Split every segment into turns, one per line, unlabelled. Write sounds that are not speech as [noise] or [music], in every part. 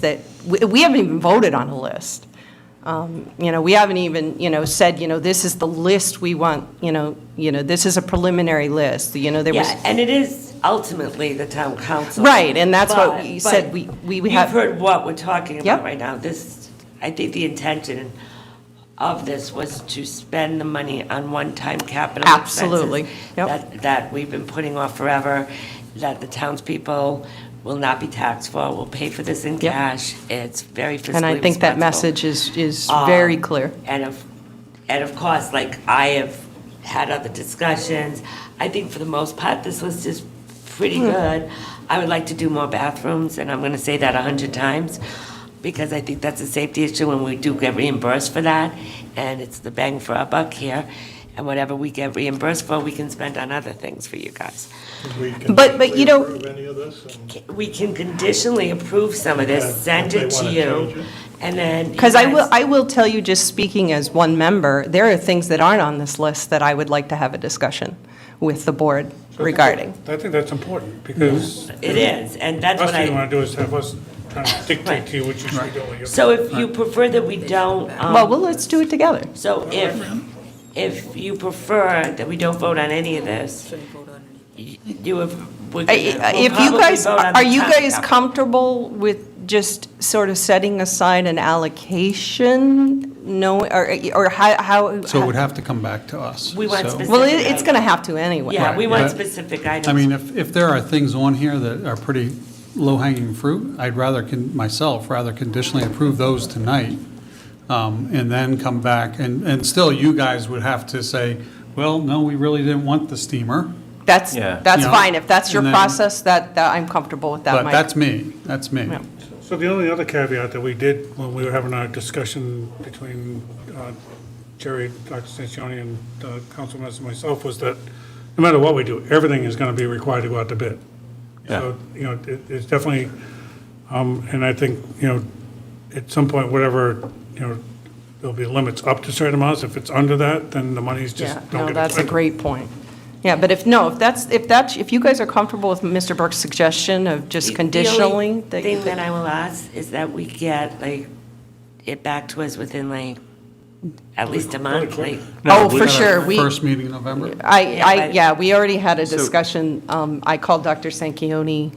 that, we we haven't even voted on a list. Um, You know, we haven't even, you know, said, you know, this is the list we want, you know, you know, this is a preliminary list, you know, there was.
Yeah, and it is ultimately the town council.
Right, and that's what we
But-
said
but
we- we- we have-
You've heard what we're talking
Yep.
about right now. This, I think the intention of this was to spend the money on one-time capital expenses.
Absolutely, yep.
That, that we've been putting off forever, that the townspeople will not be taxed for, will pay for this in
Yep.
cash. It's very fiscally
And I think that
responsible.
message is, is very
Um,
clear.
And of, and of course, like I have had other discussions, I think for the most part, this list is pretty
Hmm.
good. I would like to do more bathrooms, and I'm gonna say that a hundred times, because I think that's a safety issue, and we do get reimbursed for that, and it's the bang for our buck here. And whatever we get reimbursed for, we can spend on other things for you guys.
We can
But- but you know-
approve any of this, and
We can conditionally approve some of this,
Yeah, if
send
they
it to
wanna change
you,
it.
and then. you
Because I will,
guys-
I will tell you, just speaking as one member, there are things that aren't on this list that I would like to have a discussion with the board regarding.
I think that's important, because
It is, and that's
last
what I.
thing you want to do is have us trying to dictate to you what you should do. with your-
So if you prefer that we don't, um,
Well, well, let's do it together.
so if, if you prefer that we don't vote on any of this, y- you have, we're
I-
gonna,
I-
we'll
If you
probably
guys,
vote on
are
the
you
top
guys
now.
comfortable with just sort of setting aside an allocation? No, or, or how, how?
So it would have to come back to us.
We want
so-
specific-
Well, it- it's going to have to anyway.
Yeah, we
Right,
want
but-
specific
I
items.
mean, if, if there are things on here that are pretty low-hanging fruit, I'd rather, con- myself, rather conditionally approve those tonight, um, and then come back, and, and still, you guys would have to say, well, no, we really didn't want the steamer.
That's,
Yeah.
that's
Yeah.
fine. If that's your
And then-
process, that, that, I'm comfortable with that,
But
Mike.
that's me, that's me.
So the only other caveat that we did when we were having our discussion between uh, Jerry, Dr. Sanchoni, and uh, Councilman Mess and myself was that no matter what we do, everything is going to be required to go out to bid. So, you know, it- it's definitely, um, and I think, you know, at some point, whatever, you know, there'll be limits up to certain amounts. If it's under that, then the money's just,
Yeah,
don't
no,
get
that's a
expended.
great point. Yeah, but if, no, if that's, if that's, if you guys are comfortable with Mr. Burke's suggestion of just conditionally,
The
that
only
you
thing that
could-
I will ask is that we get, like, it back to us within, like, at least a month, like,
oh,
we-
for sure, we,
First meeting in November?
I,
Yeah,
I,
but-
yeah, we already had a discussion. Um, I called Dr. Sanquioni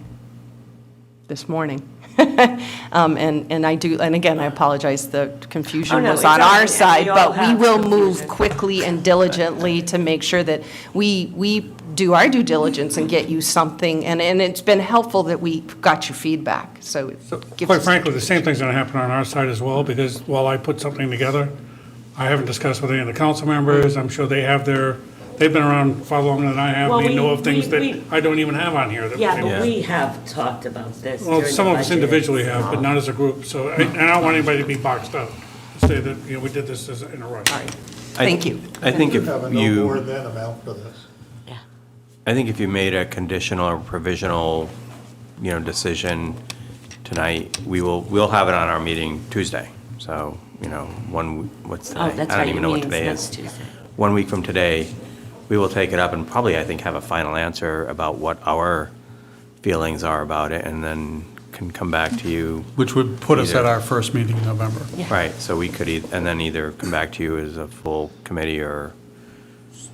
this morning. [laughs] Um, and, and I do, and again, I apologize, the
Oh,
confusion
no,
was
it's
on
all right.
our
Yeah,
side,
we all
but we
have
will
confusion.
move quickly and diligently to make sure that we, we do our due diligence and get you something. And, and it's been helpful that we got your feedback, so it gives
Quite
us.
frankly, the same thing's going to happen on our side as well, because while I put something together, I haven't discussed with any of the council members. I'm sure they have their, they've been around far longer than I have.
Well,
They
we-
know of things
we-
that
we-
I don't even have on here. that
yeah,
we-
but we have talked about this
Well,
during the
some of us
budget. Oh. uh,
individually have, but not as a group. So I and I don't want anybody to be boxed up, say that, you know, we did this as a- in a rush.
I-
Thank you.
I think
you
if
have a no more
you,
than amount for this.
I think if you made a conditional or provisional, you know, decision tonight, we will, we'll have it on our meeting Tuesday. So, you know, one, what's today?
Oh, that's
I
right,
don't even know
your
what today
meeting's
is.
next Tuesday.
One week from today, we will take it up and probably, I think, have a final answer about what our feelings are about it and then can come back to you.
Which would put us at
Either.
our first meeting in November.
Right, so we could, eith- and then either come back to you as a full committee or,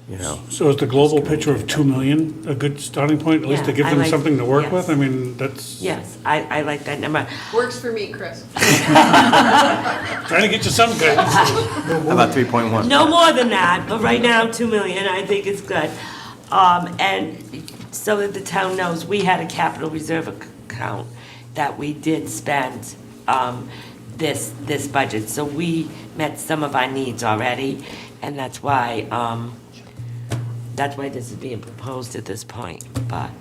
you know.
So is the global picture of 2 million a good starting point, at least to
Yeah,
give
I
them
like-
something to work
yes.
with? I mean, that's,
Yes, I, I like that number.
Works for me, Chris.
trying to get you some
[laughs]
guidance.
How About 3.1.
No more than that, but right now, two million, I think is good. Um, and so that the town knows, we had a capital reserve ac- account that we did spend, um, this, this budget. So we met some of our needs already, and that's why, um, that's why this is being proposed at this point, but.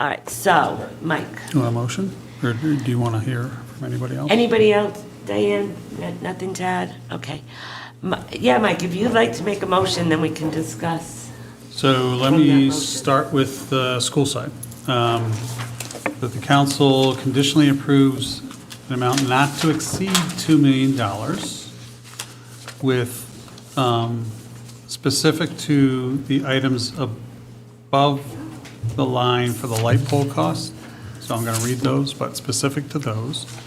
All right, so, Mike,
Do you want a motion, or do do you want to hear from anybody else?
anybody else? Diane, N- nothing to add? Okay. Mi- Yeah, Mike, if you'd like to make a motion, then we can discuss.
So let
From that
me
motion.
start with the school side. Um, That the council conditionally approves an amount not to exceed $2 million with, um, specific to the items above the line for the light pole cost. So I'm going to read those, but specific to those.